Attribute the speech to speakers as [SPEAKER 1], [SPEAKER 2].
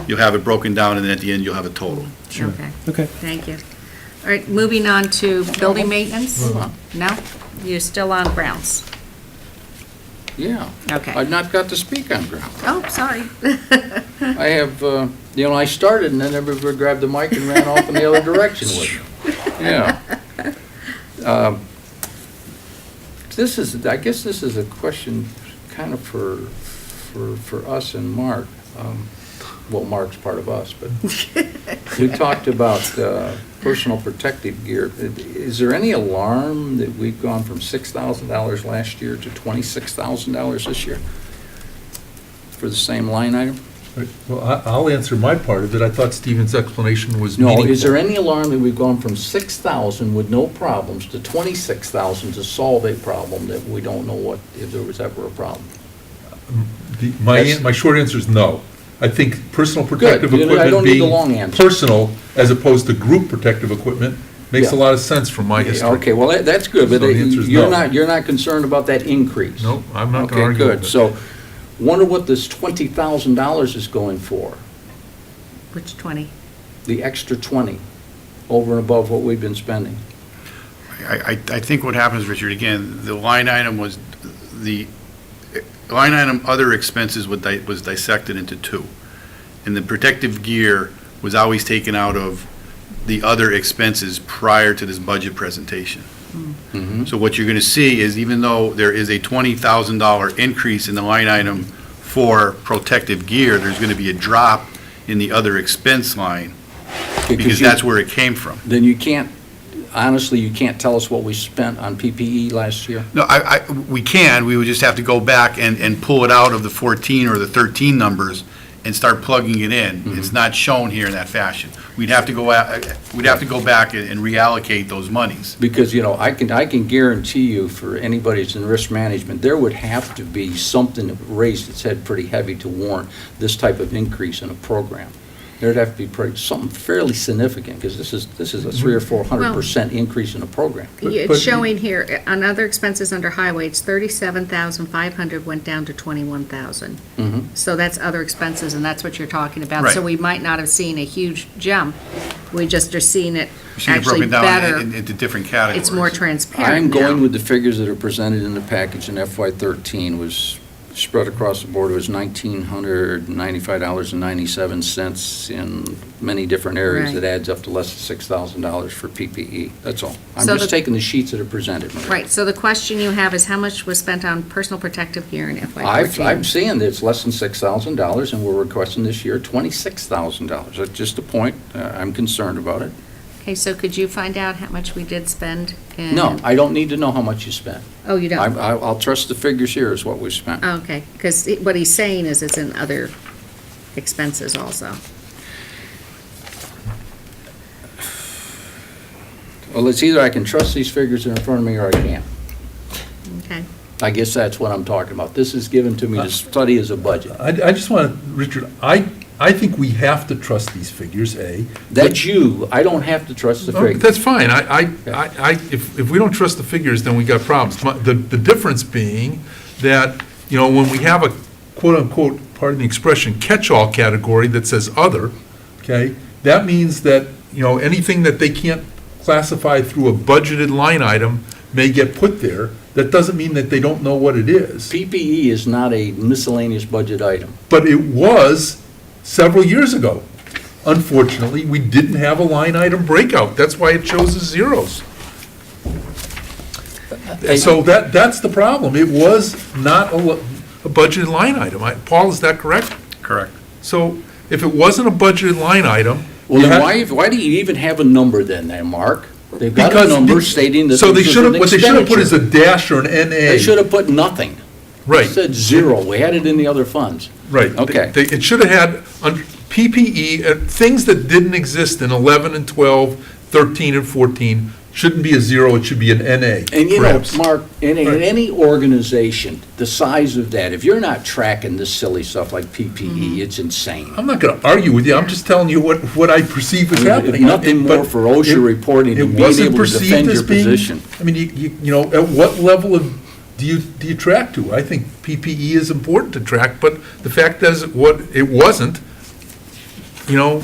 [SPEAKER 1] You'll have it broken down, and then at the end, you'll have a total.
[SPEAKER 2] Okay,
[SPEAKER 3] Okay.
[SPEAKER 2] thank you. All right, moving on to building maintenance? No? You're still on grounds?
[SPEAKER 4] Yeah.
[SPEAKER 2] Okay.
[SPEAKER 4] I've not got to speak on ground.
[SPEAKER 2] Oh, sorry.
[SPEAKER 4] I have, uh, you know, I started and then everybody grabbed the mic and ran off in the other direction with it. Yeah. Um, This is, I guess this is a question kind of for, for, for us and Mark. Um, Well, Mark's part of us, but you talked about uh, personal protective gear. Is there any alarm that we've gone from $6,000 last year to $26,000 this year for the same line item?
[SPEAKER 5] Right, Well, I- I'll answer my part of it. I thought Stephen's explanation was
[SPEAKER 4] No,
[SPEAKER 5] meaningful.
[SPEAKER 4] is there any alarm that we've gone from 6,000 with no problems to 26,000 to solve a problem that we don't know what, if there was ever a problem?
[SPEAKER 5] The- My,
[SPEAKER 4] Yes.
[SPEAKER 5] an- my short answer is no. I think personal protective
[SPEAKER 4] Good. You know, I don't
[SPEAKER 5] equipment
[SPEAKER 4] need the long
[SPEAKER 5] being
[SPEAKER 4] answer.
[SPEAKER 5] personal as opposed to group protective equipment makes a
[SPEAKER 4] Yeah.
[SPEAKER 5] lot of sense from my history.
[SPEAKER 4] Okay, well, that- that's good, but
[SPEAKER 5] So the answer is
[SPEAKER 4] you're
[SPEAKER 5] no.
[SPEAKER 4] not, you're not concerned about that increase?
[SPEAKER 5] Nope, I'm not gonna argue
[SPEAKER 4] Okay,
[SPEAKER 5] with
[SPEAKER 4] good.
[SPEAKER 5] it.
[SPEAKER 4] So wonder what this $20,000 is going for,
[SPEAKER 2] Which 20?
[SPEAKER 4] the extra 20 over and above what we've been spending?
[SPEAKER 1] I, I I think what happens, Richard, again, the line item was, the eh, line item other expenses was di- was dissected into two. And the protective gear was always taken out of the other expenses prior to this budget presentation. So what you're going to see is even though there is a $20,000 increase in the line item for protective gear, there's going to be a drop in the other expense line because
[SPEAKER 4] you-
[SPEAKER 1] that's where it came from.
[SPEAKER 4] Then you can't, honestly, you can't tell us what we spent on PPE last year?
[SPEAKER 1] No, I, I, we can, we would just have to go back and, and pull it out of the 14 or the 13 numbers and start plugging it in. It's not shown here in that fashion. We'd have to go, out- we'd have to go back and and reallocate those monies.
[SPEAKER 4] Because, you know, I can, I can guarantee you, for anybody that's in risk management, there would have to be something that raised its head pretty heavy to warrant this type of increase in a program. There'd have to be pretty, something fairly significant, because this is, this is a three or four hundred percent increase in a program.
[SPEAKER 5] But-
[SPEAKER 2] It's
[SPEAKER 5] but-
[SPEAKER 2] showing here, uh, on other expenses under highway, it's 37,500 went down to 21,000.
[SPEAKER 4] Mhm.
[SPEAKER 2] So that's other expenses, and that's what you're talking about.
[SPEAKER 1] Mm-hmm. Right.
[SPEAKER 2] So we might not have seen a huge jump, we just are seeing it
[SPEAKER 1] You see it
[SPEAKER 2] actually
[SPEAKER 1] broken down in-
[SPEAKER 2] better.
[SPEAKER 1] in- into different categories.
[SPEAKER 2] It's more
[SPEAKER 4] I'm
[SPEAKER 2] transparent
[SPEAKER 4] going
[SPEAKER 2] now.
[SPEAKER 4] with the figures that are presented in the package in FY thirteen was spread across the board, it was nineteen hundred ninety-five dollars and ninety-seven cents in many different areas.
[SPEAKER 2] Right.
[SPEAKER 4] It adds up to less than six thousand dollars for PPE, that's all. I'm
[SPEAKER 2] So
[SPEAKER 4] just
[SPEAKER 2] the-
[SPEAKER 4] taking the sheets that are presented, Maria.
[SPEAKER 2] Right, so the question you have is how much was spent on personal protective gear in
[SPEAKER 4] I've, I'm
[SPEAKER 2] FY14?
[SPEAKER 4] seeing that it's less than six thousand dollars, and we're requesting this year twenty-six thousand dollars. That's just a point, Uh, I'm concerned about it.
[SPEAKER 2] Okay, so could you find out how much we did spend? in-
[SPEAKER 4] No, I don't need to know how much you spent.
[SPEAKER 2] Oh, you
[SPEAKER 4] I,
[SPEAKER 2] don't?
[SPEAKER 4] I- I'll trust the figures here is what we spent.
[SPEAKER 2] Oh, Okay, because what he's saying is it's in other expenses also.
[SPEAKER 4] Well, it's either I can trust these figures that are in front of me or I can't.
[SPEAKER 2] Okay,
[SPEAKER 4] I guess that's what I'm talking about. This is given to me to study as a budget.
[SPEAKER 5] I, I just want to, Richard, I, I think we have to trust these figures, A.
[SPEAKER 4] That's you, I don't have to trust the
[SPEAKER 5] Oh, but
[SPEAKER 4] figures.
[SPEAKER 5] That's fine. I, I, I, I- if, if we don't trust the figures, then we got problems. My- The, the difference being that, you know, when we have a quote-unquote, pardon the expression, catch-all category that says other, okay, that means that, you know, anything that they can't classify through a budgeted line item may get put there. That doesn't mean that they don't know what it is.
[SPEAKER 4] PPE E is not a miscellaneous budget item.
[SPEAKER 5] But it was several years ago. Unfortunately, we didn't have a line item breakout. That's why it shows as zeros. And So that, that's the problem. It was not a, lo- a budgeted line item. I- Paul, is that correct?
[SPEAKER 1] Correct.
[SPEAKER 5] So if it wasn't a budgeted line item.
[SPEAKER 4] Well,
[SPEAKER 5] you
[SPEAKER 4] then
[SPEAKER 5] had-
[SPEAKER 4] why, why do you even have a number then, then, Mark? They've got a
[SPEAKER 5] because
[SPEAKER 4] number
[SPEAKER 5] the-
[SPEAKER 4] stating that
[SPEAKER 5] So they
[SPEAKER 4] this is
[SPEAKER 5] should
[SPEAKER 4] an
[SPEAKER 5] have, what they should have put is a
[SPEAKER 4] expenditure.
[SPEAKER 5] dash or an NA.
[SPEAKER 4] They should have put nothing.
[SPEAKER 5] Right.
[SPEAKER 4] It said zero. We had it in the other funds.
[SPEAKER 5] Right.
[SPEAKER 4] Okay.
[SPEAKER 5] They- It should have had under PPE, uh, things that didn't exist in 11 and 12, 13 and 14, shouldn't be a zero, it should be an NA,
[SPEAKER 4] And you know,
[SPEAKER 5] perhaps.
[SPEAKER 4] Mark, in, in
[SPEAKER 5] Right.
[SPEAKER 4] any organization, the size of that, if you're not tracking this silly stuff like PPE, it's insane.
[SPEAKER 5] I'm not going to argue with you, I'm just telling you what, what I perceive is
[SPEAKER 4] I mean,
[SPEAKER 5] happening.
[SPEAKER 4] nothing more
[SPEAKER 5] But
[SPEAKER 4] for OSHA
[SPEAKER 5] it-
[SPEAKER 4] reporting than
[SPEAKER 5] it
[SPEAKER 4] being
[SPEAKER 5] wasn't
[SPEAKER 4] able to
[SPEAKER 5] perceived
[SPEAKER 4] defend
[SPEAKER 5] as
[SPEAKER 4] your
[SPEAKER 5] being-
[SPEAKER 4] position.
[SPEAKER 5] I mean, you, you- you know, at what level of, do you, do you track to? E I think PPE is important to track, but the fact is, what, it wasn't, you know,